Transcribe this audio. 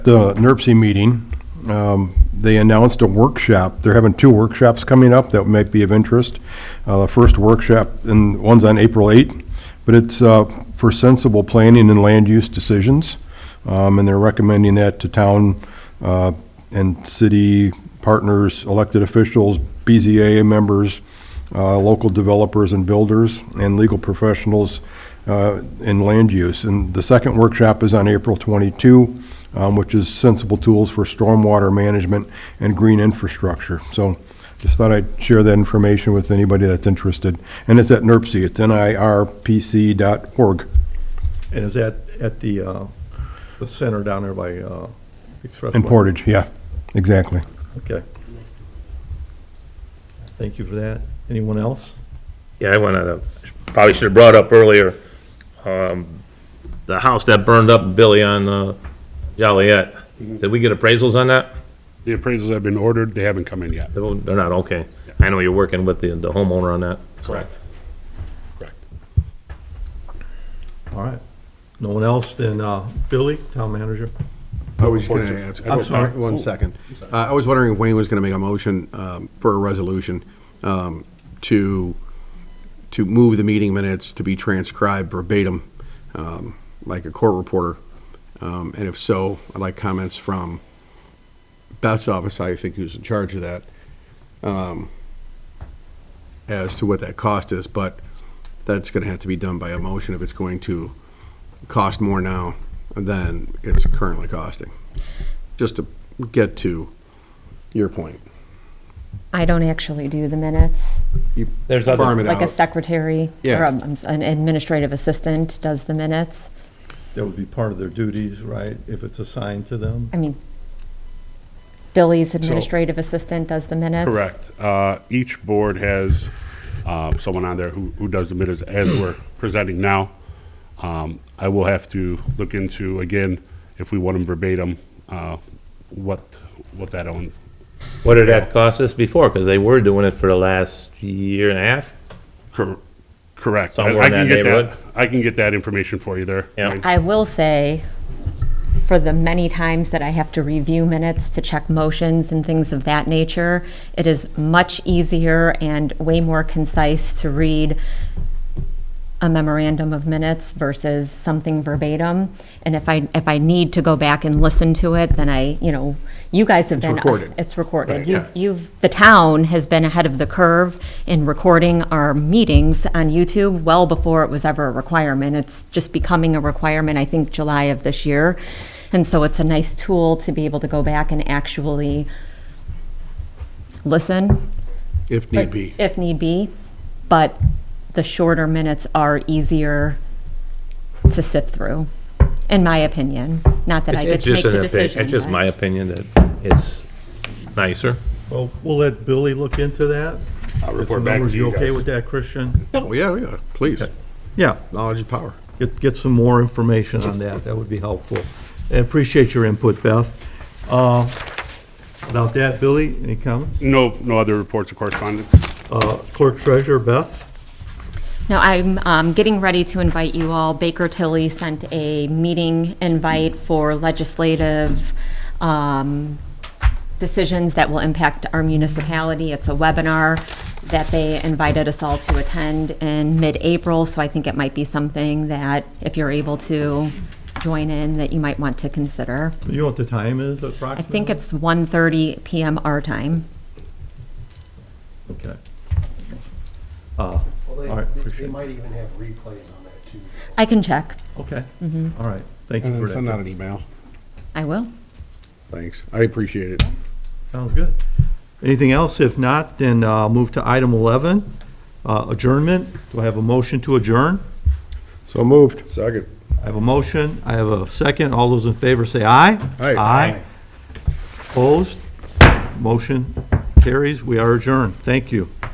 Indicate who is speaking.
Speaker 1: the NERC meeting, um, they announced a workshop. They're having two workshops coming up that might be of interest. Uh, The first workshop, and one's on April 8, but it's uh, for sensible planning and land use decisions. Um, And they're recommending that to town uh, and city partners, elected officials, BZA members, uh, local developers and builders, and legal professionals uh, in land use. And the second workshop is on April 22, um, which is sensible tools for stormwater management and green infrastructure. So just thought I'd share that information with anybody that's interested. And it's at NIRPC, it's N-I-R-P-C dot org.
Speaker 2: And is that at the, uh, the center down there by, uh, Expressway?
Speaker 1: In Portage, yeah, exactly.
Speaker 2: Okay. Thank you for that. Anyone else?
Speaker 3: Yeah, I went on a, probably should have brought up earlier, um, the house that burned up, Billy, on uh, Joliet. Did we get appraisals on that?
Speaker 4: The appraisals have been ordered, they haven't come in yet.
Speaker 3: They're they're not, okay. I know you're working with the the homeowner on that.
Speaker 4: Correct. Correct.
Speaker 2: All right. No one else? Then, uh, Billy, town manager?
Speaker 5: I was just gonna ask.
Speaker 2: I'm sorry.
Speaker 5: One second. Uh, I was wondering if Wayne was gonna make a motion um, for a resolution um, to, to move the meeting minutes to be transcribed verbatim, um, like a court reporter. Um, And if so, I'd like comments from Beth's office, I think who's in charge of that, um, as to what that cost is, but that's gonna have to be done by a motion if it's going to cost more now than it's currently costing just to get to your point.
Speaker 6: I don't actually do the minutes.
Speaker 5: You
Speaker 3: There's other-
Speaker 5: farm it
Speaker 6: Like a
Speaker 5: out.
Speaker 6: secretary
Speaker 5: Oh.
Speaker 6: or
Speaker 5: Yeah.
Speaker 6: um, um, an administrative assistant does the minutes.
Speaker 2: That would be part of their duties, right? If it's assigned to them?
Speaker 6: I mean, Billy's administrative assistant does the minutes.
Speaker 4: Correct. Uh, Each board has um, someone on there who who does the minutes as we're presenting now. Um, I will have to look into, again, if we want them verbatim, uh, what, what that own.
Speaker 3: What did that cost us before? Because they were doing it for the last year and a half.
Speaker 4: Cor- Correct. I- I
Speaker 3: Somewhere in that
Speaker 4: can get
Speaker 3: neighborhood?
Speaker 4: I can get that information for you there.
Speaker 3: Yeah.
Speaker 4: Wayne.
Speaker 6: I will say, for the many times that I have to review minutes to check motions and things of that nature, it is much easier and way more concise to read a memorandum of minutes versus something verbatim. And if I, if I need to go back and listen to it, then I, you know, you guys have been.
Speaker 5: recorded.
Speaker 6: It's recorded.
Speaker 5: Right,
Speaker 6: You-
Speaker 5: yeah.
Speaker 6: You've, the town has been ahead of the curve in recording our meetings on YouTube well before it was ever a requirement. It's just becoming a requirement, I think, July of this year. And so it's a nice tool to be able to go back and actually listen
Speaker 5: If need be.
Speaker 6: if need be, but the shorter minutes are easier to sift through, in my opinion. Not that I get
Speaker 3: It's
Speaker 6: to make
Speaker 3: just
Speaker 6: the
Speaker 3: an opi-
Speaker 6: decision.
Speaker 3: It's just
Speaker 6: but-
Speaker 3: my opinion that it's nicer.
Speaker 2: Well, we'll let Billy look into that.
Speaker 4: I'll report back to
Speaker 2: You
Speaker 4: you
Speaker 2: okay
Speaker 4: guys.
Speaker 2: with that, Christian?
Speaker 5: Oh, yeah, yeah, please.
Speaker 2: Yeah.
Speaker 5: Knowledge is power.
Speaker 2: get, get some more information on that, that would be helpful. And appreciate your input, Beth. Uh, Without that, Billy, any comments?
Speaker 4: No, no other reports or correspondence?
Speaker 2: Uh, Clerk Treasurer, Beth?
Speaker 6: No, I'm um, getting ready to invite you all. Baker Tilly sent a meeting invite for legislative um, decisions that will impact our municipality. It's a webinar that they invited us all to attend in mid-April, so I think it might be something that if you're able to join in, that you might want to consider.
Speaker 2: You know what the time is
Speaker 6: I
Speaker 2: approximately?
Speaker 6: think it's 1:30 PM our time.
Speaker 2: Okay. Uh,
Speaker 7: Well, they,
Speaker 2: All right,
Speaker 7: they-
Speaker 2: appreciate
Speaker 7: they
Speaker 2: it.
Speaker 7: might even have replays on that too.
Speaker 6: I can check.
Speaker 2: Okay,
Speaker 6: Mm-hmm.
Speaker 2: all right, thank you
Speaker 5: And
Speaker 2: for
Speaker 5: then send out
Speaker 2: that.
Speaker 5: an email.
Speaker 6: I will.
Speaker 5: Thanks. I appreciate it.
Speaker 2: Sounds good. Anything else? If not, then uh, move to item 11, uh, adjournment. Do I have a motion to adjourn?
Speaker 1: So moved.
Speaker 5: Second.
Speaker 2: I have a motion, I have a second, all those in favor say aye.
Speaker 5: Aye.
Speaker 2: Aye. Opposed? Motion carries, we are adjourned, thank you.